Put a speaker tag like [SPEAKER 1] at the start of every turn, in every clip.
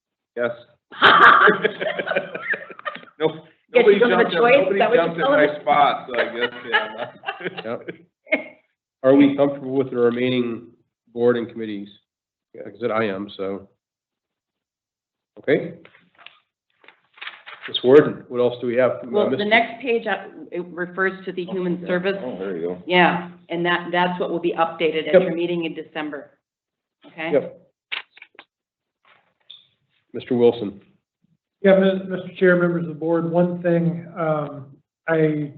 [SPEAKER 1] Yes. Nope.
[SPEAKER 2] Guess
[SPEAKER 1] Nobody
[SPEAKER 2] you don't have a
[SPEAKER 1] jumped in-
[SPEAKER 2] choice? Is
[SPEAKER 1] Nobody
[SPEAKER 2] that what you're
[SPEAKER 1] jumped in
[SPEAKER 2] telling
[SPEAKER 1] my
[SPEAKER 2] me?
[SPEAKER 1] spot, so I guess, yeah. I'm not-
[SPEAKER 3] Are we comfortable with the remaining board and committees? Like I said, I am, so. Okay. Ms. Warden, what else do we have?
[SPEAKER 2] Well,
[SPEAKER 3] Uh, Mr.
[SPEAKER 2] the next page, uh, it refers to the human service,
[SPEAKER 1] Oh, there you go.
[SPEAKER 2] yeah, and that, that's what will be updated at
[SPEAKER 3] Yep.
[SPEAKER 2] your meeting in December, okay?
[SPEAKER 3] Yep. Mr. Wilson.
[SPEAKER 4] Yeah, Ms- Mr. Chair, members of the board, one thing, um, I,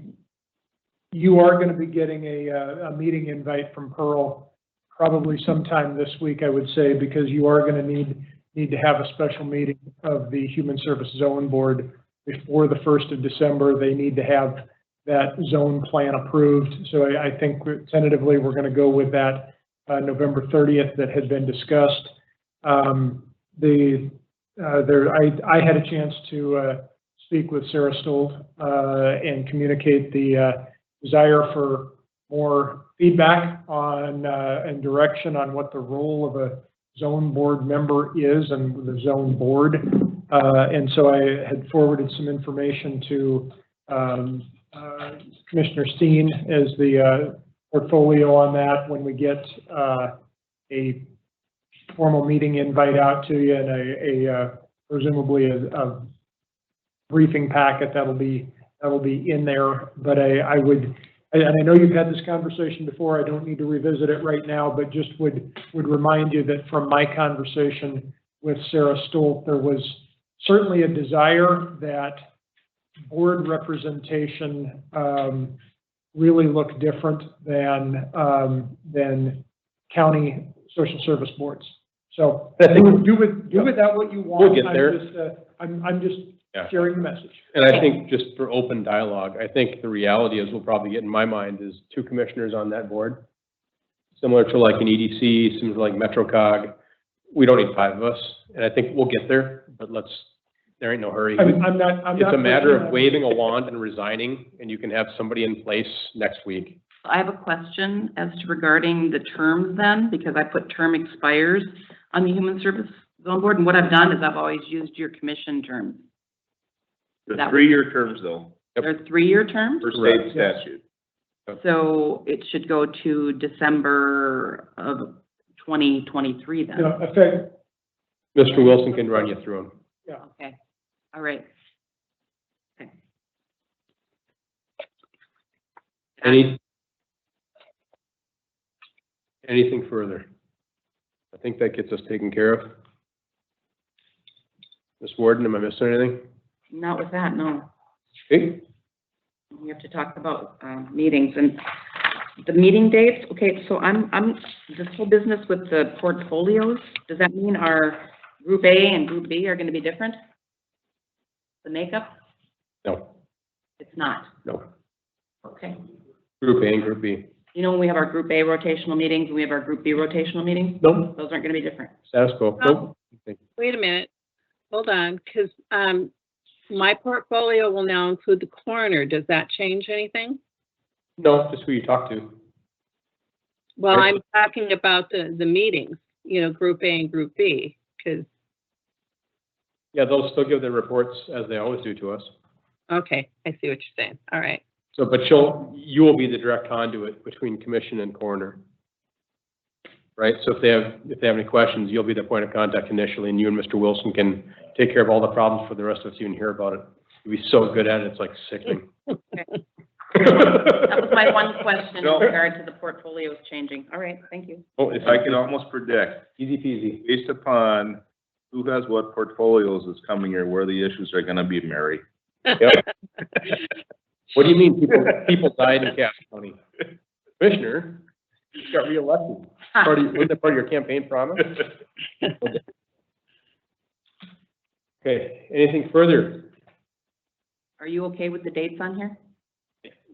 [SPEAKER 4] you are gonna be getting a, uh, a meeting invite from Pearl probably sometime this week, I would say, because you are gonna need, need to have a special meeting of the Human Service Zone Board before the first of December. They need to have that zone plan approved. So I, I think we're- tentatively, we're gonna go with that, uh, November thirtieth that had been discussed. Um, the, uh, there, I, I had a chance to, uh, speak with Sarah Stoll, uh, and communicate the, uh, desire for more feedback on, uh, and direction on what the role of a zone board member is and the zone board. Uh, and so I had forwarded some information to, um, uh, Commissioner Steen as the, uh, portfolio on that when we get, uh, a formal meeting invite out to you and a, a uh, presumably a, a briefing packet that'll be, that'll be in there. But I, I would, and and I know you've had this conversation before, I don't need to revisit it right now, but just would, would remind you that from my conversation with Sarah Stolt, there was certainly a desire that board representation, um, really look different than, um, than county social service boards. So
[SPEAKER 3] I think-
[SPEAKER 4] do with, do with that what you want.
[SPEAKER 3] We'll get
[SPEAKER 4] I'm
[SPEAKER 3] there.
[SPEAKER 4] just, uh, I'm, I'm
[SPEAKER 1] Yeah.
[SPEAKER 4] just sharing the message.
[SPEAKER 3] And I think just for open dialogue, I think the reality is we'll probably get in my mind is two commissioners on that board. Similar to like an EDC, similar to like MetroCog. We don't need five of us, and I think we'll get there, but let's, there ain't no hurry.
[SPEAKER 4] I'm, I'm not, I'm not.
[SPEAKER 3] It's a matter
[SPEAKER 4] pushing
[SPEAKER 3] of
[SPEAKER 4] on-
[SPEAKER 3] waving a wand and resigning, and you can have somebody in place next week.
[SPEAKER 2] I have a question as to regarding the terms then, because I put term expires on the Human Service Zone Board, and what I've done is I've always used your commission terms.
[SPEAKER 1] The
[SPEAKER 2] That-
[SPEAKER 1] three-year terms though,
[SPEAKER 3] Yep.
[SPEAKER 2] They're three-year terms,
[SPEAKER 1] per
[SPEAKER 3] Correct.
[SPEAKER 1] state statute.
[SPEAKER 2] so it should go to December of twenty twenty-three
[SPEAKER 4] You
[SPEAKER 2] then.
[SPEAKER 4] know, affect,
[SPEAKER 3] Mr. Wilson can run you through them.
[SPEAKER 2] Okay, all right. Okay.
[SPEAKER 3] Any? Anything further? I think that gets us taken care of. Ms. Warden, am I missing anything?
[SPEAKER 2] Not with that, no.
[SPEAKER 3] Okay,
[SPEAKER 2] we have to talk about, um, meetings and the meeting dates, okay, so I'm, I'm, this whole business with the portfolios, does that mean our group A and group B are gonna be different? The makeup?
[SPEAKER 3] no,
[SPEAKER 2] It's not,
[SPEAKER 3] no.
[SPEAKER 2] okay.
[SPEAKER 3] Group A and Group B.
[SPEAKER 2] You know, when we have our group A rotational meetings, and we have our group B rotational meetings,
[SPEAKER 3] Nope.
[SPEAKER 2] those aren't gonna be different.
[SPEAKER 3] Status quo, nope.
[SPEAKER 5] Wait a minute, hold on, because, um, my portfolio will now include the coroner. Does that change anything?
[SPEAKER 3] No, just who you talk to.
[SPEAKER 5] Well,
[SPEAKER 3] Right.
[SPEAKER 5] I'm talking about the, the meetings, you know, Group A and Group B, because,
[SPEAKER 3] Yeah, they'll still give their reports as they always do to us.
[SPEAKER 5] okay, I see what you're saying. All right.
[SPEAKER 3] So, but you'll, you will be the direct conduit between commission and coroner. Right, so if they have, if they have any questions, you'll be the point of contact initially, and you and Mr. Wilson can take care of all the problems for the rest of us, you can hear about it. You'll be so good at it, it's like sickening.
[SPEAKER 2] That was my one question in
[SPEAKER 1] No.
[SPEAKER 2] regard to the portfolios changing, all right, thank you.
[SPEAKER 3] Oh,
[SPEAKER 1] If I can almost predict,
[SPEAKER 3] easy peasy.
[SPEAKER 1] based upon who has what portfolios is coming here, where the issues are gonna be, Mary.
[SPEAKER 3] What do you mean, people, people died in Cache County? Commissioner, you got reelected. Part of, wasn't that part of your campaign promise? Okay, anything further?
[SPEAKER 2] Are you okay with the dates on here?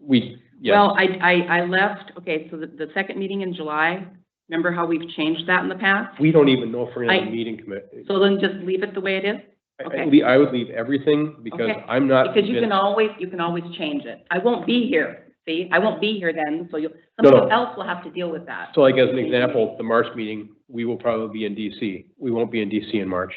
[SPEAKER 3] We, yes.
[SPEAKER 2] Well, I, I, I left, okay, so the, the second meeting in July, remember how we've changed that in the past?
[SPEAKER 3] We don't even know if we're gonna have a
[SPEAKER 2] I-
[SPEAKER 3] meeting committee.
[SPEAKER 2] So then just leave it the way it is?
[SPEAKER 3] I,
[SPEAKER 2] okay.
[SPEAKER 3] le- I would leave everything because
[SPEAKER 2] Okay,
[SPEAKER 3] I'm not.
[SPEAKER 2] Because you can
[SPEAKER 3] convinced-
[SPEAKER 2] always, you can always change it. I won't be here, see? I won't be here then, so you'll,
[SPEAKER 3] No, no.
[SPEAKER 2] somebody else will have to deal with that.
[SPEAKER 3] So like as an example, the March meeting, we will probably be in DC. We won't be in DC in March.